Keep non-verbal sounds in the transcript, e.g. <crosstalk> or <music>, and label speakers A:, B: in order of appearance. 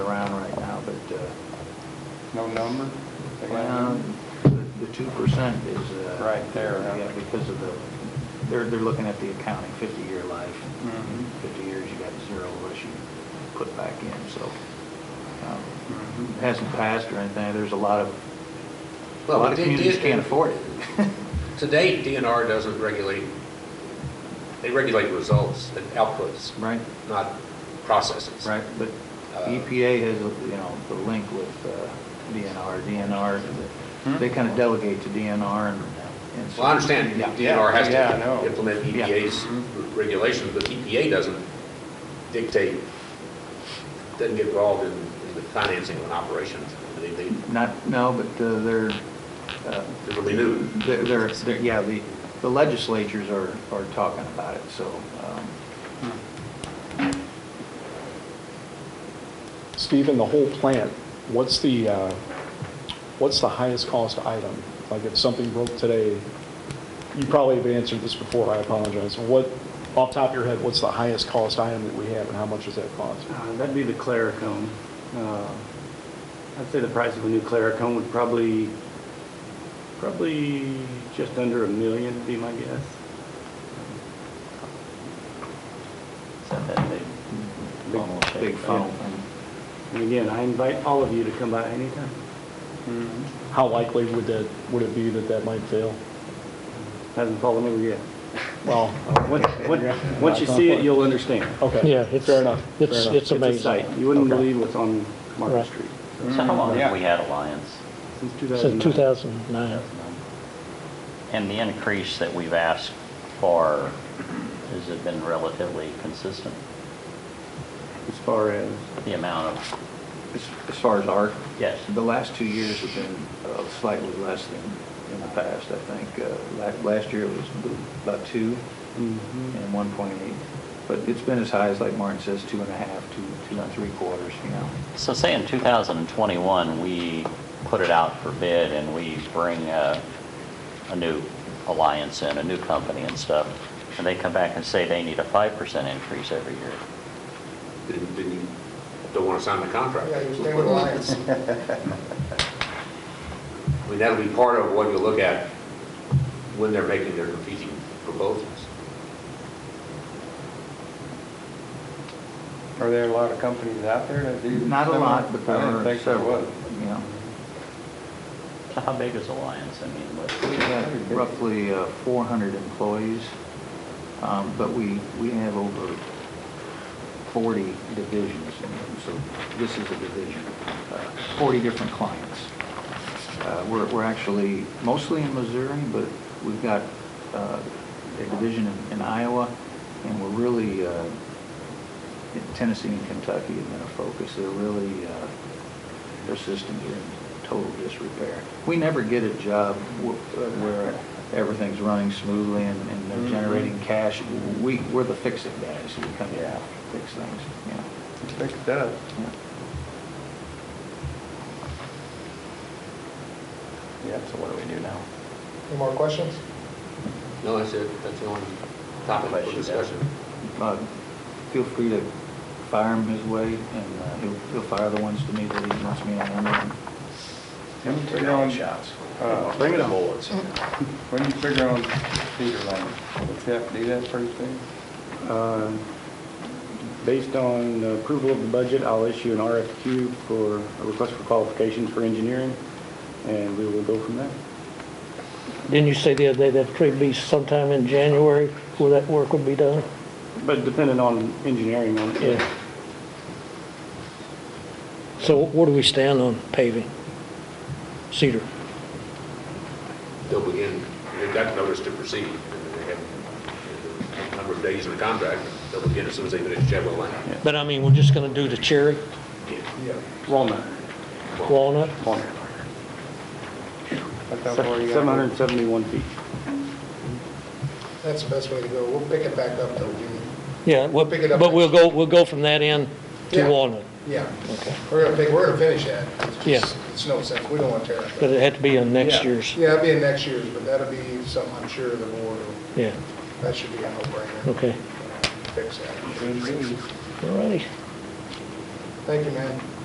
A: No number? They got a
B: uh, Well,
A: number?
B: the two percent is, uh...
A: Right there, huh?
B: Yeah, because of the, they're, they're looking at the accounting, fifty-year life.
A: Mhm.
B: Fifty years, you got zero unless you put back in, so, um,
A: Mhm.
B: it hasn't passed or anything, there's a lot of, a
C: Well,
B: lot of
C: it- it-
B: communities
C: it-
B: can't afford it.
C: <laughs> To date, DNR doesn't regulate, they regulate results and outputs,
B: Right,
C: not processes.
B: right, but
C: Uh,
B: EPA has, a- you know, the link with uh, DNR, DNR, they
A: Hmm?
B: kind of delegate to DNR and... and so-
C: Well, I understand
B: Yeah.
C: DNR has
A: Yeah, I know.
C: to implement E
B: Yeah.
C: EPA's regulations, but EPA doesn't dictate, doesn't get involved in in the financing of an operation. They, they,
B: Not, no, but uh, they're, uh,
C: they really do.
B: they're- they're, they're- yeah, the the legislatures are, are talking about it, so, um,
D: Stephen, the whole plant, what's the, uh, what's the highest cost item? Like if something broke today, you probably have answered this before, I apologize. What, off the top of your head, what's the highest cost item that we have and how much does that cost?
E: Uh, That'd be the Claricone. Uh, I'd say the price of a new Claricone would probably, probably just under a million, would be my guess.
B: it's not that big,
E: Almost
B: big
E: big,
B: funnel
E: yeah.
B: thing.
E: And again, I invite all of you to come by anytime.
A: Mhm.
D: How likely would that, would it be that that might fail?
E: Hasn't fallen over yet.
D: Well,
E: Once- once- Once you see it, you'll understand.
D: okay.
F: Yeah, it's-
D: Oh, Fair enough. fair
F: it's-
D: enough.
F: it's-
E: It's a
F: amazing.
E: sight. You wouldn't
D: Okay.
E: believe what's on Market
F: Right.
E: Street
G: So how long
A: Yeah.
G: have we had Alliance?
E: since
F: Since
E: 2009.
F: 2009.
G: And the increase that we've asked for, has it been relatively consistent?
E: As far as,
G: The amount of,
B: As as far as art?
G: Yes.
B: The last two years have been uh, slightly less than in the past, I think. Uh, la- Last year it was about two
E: mm-hmm.
B: and 1.8, but it's been as high as, like Martin says, two and a half, two, two and three quarters, you know.
G: so say in 2021, we put it out for bid and we bring a, a new Alliance in, a new company and stuff, and they come back and say they need a 5% increase every year.
C: Didn't, didn't, don't want to sign the contract.
H: Yeah, you stay with Alliance.
C: I mean, that'll be part of what you look at when they're making their competing proposals.
A: Are there a lot of companies out there that do?
B: Not a lot,
A: similar?
B: but there
A: I didn't
B: are
A: think there
B: several,
A: was.
B: you know.
G: So how big is Alliance? I mean,
B: We
G: what,
B: have roughly uh, 400 employees, um, but we, we have over 40 divisions, and so this is a division, uh, 40 different clients. Uh, We're, we're actually mostly in Missouri, but we've got uh, a division in- in Iowa, and we're really, uh, in Tennessee and Kentucky have been a focus. They're really, uh, their systems are in total disrepair. We never get a job wh- uh, where everything's running smoothly and and they're generating cash. We, we're the fix-it guys who come in and fix things, you know.
A: Think it does. Yeah, so what do we do now?
H: Any more questions?
C: No, that's it, that's the only topic for discussion.
B: Uh, Feel free to fire him his way and uh, he'll, he'll fire the ones to me that he wants me to handle.
A: When you figure on, uh,
E: Bring it on.
A: when you figure on Cedar Lane, do you have to do that first thing?
E: Uh, Based on approval of the budget, I'll issue an RFQ for, a request for qualifications for engineering, and we will go from there.
F: Didn't you say the other day that tree would be sometime in January where that work would be done?
E: But depending on engineering on it.
F: Yeah. So where do we stand on paving? Cedar?
C: They'll begin, they've got notice to proceed, and they have a number of days in the contract, they'll begin as soon as they finish Chadwell Lane.
F: But I mean, we're just going to do the cherry,
E: Walnut.
F: walnut?
E: Walnut.
A: That's how far you gotta go.
E: 771 feet.
H: That's the best way to go. We'll pick it back up though, Jimmy.
F: Yeah, we'll-
H: Pick it up
F: but we'll
H: next.
F: go, we'll go from that end
H: Yeah.
F: to walnut.
H: Yeah,
F: Okay.
H: we're gonna pick, we're gonna finish that. It's just-
F: Yeah.
H: It's no sense, we don't want to tear
F: But
H: it up.
F: it had to be in next
A: Yeah.
F: year's,
H: Yeah, it'll be in next year's, but that'll be something I'm sure the board, will-
F: yeah,
H: that should be a no-brainer.
F: okay.
H: Fix that.
A: Good news.
F: All righty.
H: Thank you, man.